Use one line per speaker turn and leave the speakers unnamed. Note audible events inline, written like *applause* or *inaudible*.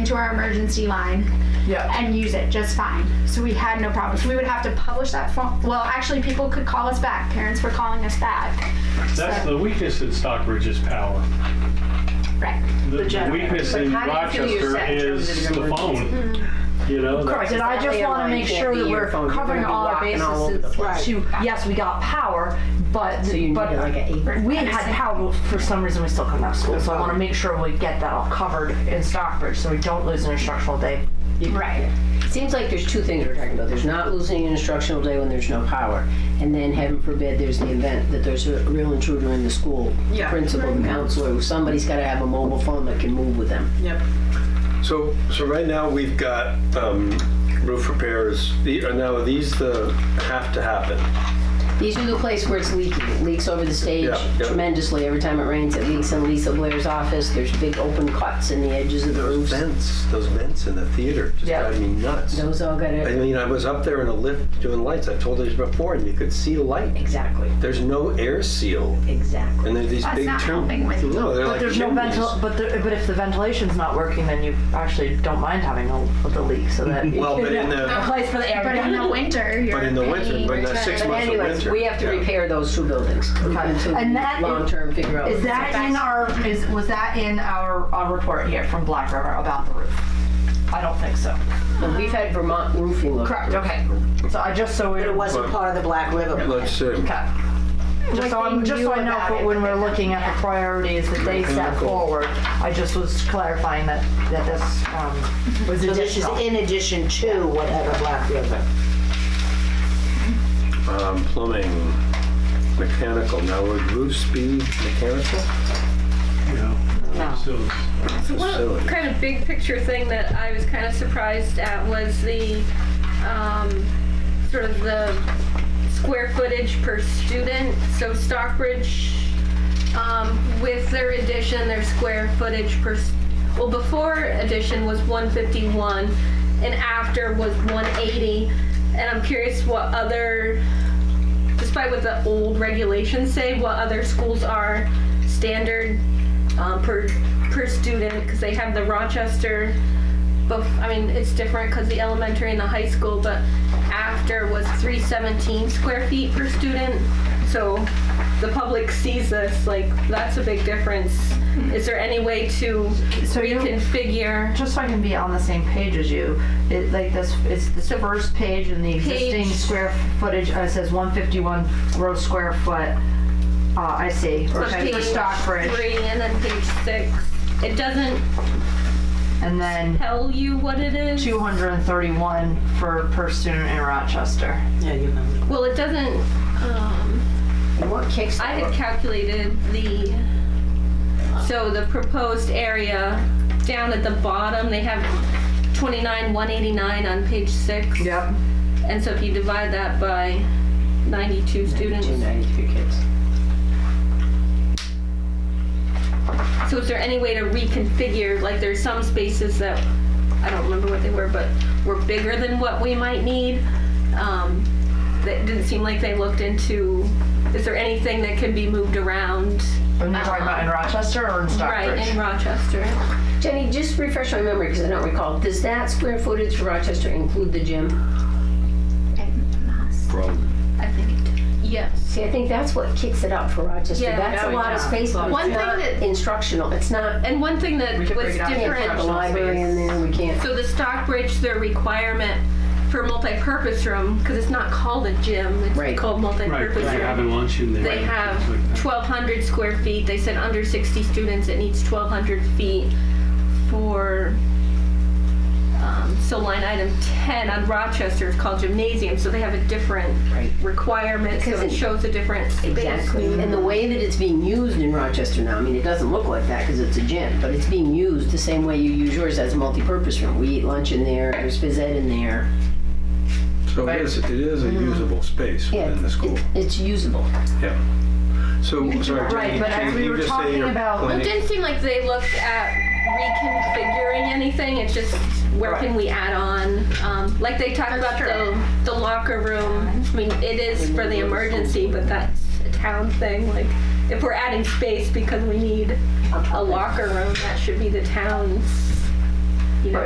to our emergency line
Yeah.
and use it just fine. So we had no problems. We would have to publish that phone. Well, actually, people could call us back. Parents were calling us back.
That's the weakness in Stockbridge is power.
Right.
The- The
generator.
weakness in
But how do
Rochester
you feel yourself in
is
terms of Mm-hmm. an
the phone. You know?
Correct, and I just
Exactly,
want to
everyone
make
can't
sure
be
that
your
we're
phone. You're
covering
gonna be
all our
walking all over the
bases
place.
to, yes, we got power, but,
So you need like an
but
apron.
we had power, but for some reason, we still come out of school, so I want to make sure we get that all covered in Stockbridge, so we don't lose an instructional day.
Right.
Seems like there's two things we're talking about. There's not losing an instructional day when there's no power, and then heaven forbid there's the event that there's a real intruder in the school.
Yeah.
Principal, the counselor, somebody's got to have a mobile phone that can move with them.
Yep.
So, so right now we've got um, roof repairs. The- are Now, are these the have to happen?
These are the place where it's leaking. It leaks over the stage
Yeah, yeah.
tremendously. Every time it rains, it leaks in Lisa Blair's office. There's big open cuts in the edges of the
Those
roofs.
vents, those vents in the theater just
Yeah.
drive me nuts.
Those all got
I
to
mean, I was up there in a lift doing lights. I've told you this before, and you could see light.
exactly,
There's no air seal,
exactly.
and there's these
That's
big
not
tubes.
helping with-
No, they're
But
like
there's no
chimneys.
ventil, but, there- but if the ventilation's not working, then you actually don't mind having a, the leak, so
*laughs*
that.
Well, but
*laughs*
in the
Place for the air.
But
*laughs*
in the winter, you're
but in the winter,
paying
but in the
return.
six
But
months of
anyways,
winter,
we have to
yeah.
repair those two buildings until
And that is-
long term figure out.
Is that in our, is, was that in our, our report here from Black River about the roof? I don't think so.
Well, we've had Vermont roofing look.
Correct, okay. So I just, so we.
But it wasn't part of the Black River.
Let's see.
Okay. Just so, I'm, just so I know for when we're looking at the priorities that they set forward, I just was clarifying that, that this um, was
So this is
additional.
in addition to whatever Black River.
Um, plumbing, mechanical. Now, would roofs be mechanical?
You know, so-
So
Facility.
one kind of big picture thing that I was kind of surprised at was the um, sort of the square footage per student. So Stockbridge, um, with their addition, their square footage per, s- well, before addition was 151 and after was 180. And I'm curious what other despite what the old regulations say, what other schools are standard um, per per student because they have the Rochester. But I mean, it's different because the elementary and the high school. But after was 317 square feet per student. So the public sees this like that's a big difference. Is there any way to
So you-
reconfigure?
Just so I can be on the same page as you, it, like this, it's the first page in the existing
Page.
square footage, uh, it says 151 gross square foot. Uh, I see,
So
for for
page
Stockbridge.
Three and then page six. It doesn't
And then
tell you what it is.
231 for per student in Rochester.
Yeah, you know.
Well, it doesn't. Um,
And what kicks?
I had calculated the so the proposed area down at the bottom. They have twenty nine one eighty nine on page six.
Yep.
And so if you divide that by ninety two students,
293 kids.
so is there any way to reconfigure? Like there's some spaces that I don't remember what they were, but were bigger than what we might need. Um, that didn't seem like they looked into. Is there anything that can be moved around?
And you're talking about in Rochester or in Stockbridge?
Right in Rochester.
Jenny, just refresh my memory because I don't recall. Does that square footage for Rochester include the gym?
I think it did. Yes.
See, I think that's what kicks it up for Rochester.
Yeah,
that's a
yeah,
lot of
yeah.
space. but
One
it's
thing
not
that-
instructional. It's not.
And one thing that was
break it out.
We can't
different,
put the library in there. We can't.
so the Stockbridge, their requirement for multi-purpose room, because it's not called a gym,
Right.
it's called
Right,
multi-purpose
because they're
room.
having lunch in there.
They
Right,
have
things like that.
1,200 square feet. They said under 60 students, it needs 1,200 feet for, um, so line item 10 on Rochester is called gymnasium, so they have a different requirement, so
Because
it
it-
shows a different space.
Exactly. And the way that it's being used in Rochester now, I mean, it doesn't look like that because it's a gym, but it's being used the same way you use yours as a multi-purpose room. We eat lunch in there. There's phys ed in there.
So it is, it is a
Mm-hmm.
usable space
Yeah,
within the
it's-
school.
It's usable.
Yeah. So, sorry,
Right,
Jenny,
but as
can
we
you
were
just say
talking
your
about-
Well, it
planning-
didn't seem like they looked at reconfiguring anything. It's just where can we add on? Um, like they talked about the, the locker room. I mean, it is for the emergency, but that's a town thing. Like if we're adding space because we need a locker room, that should be the town's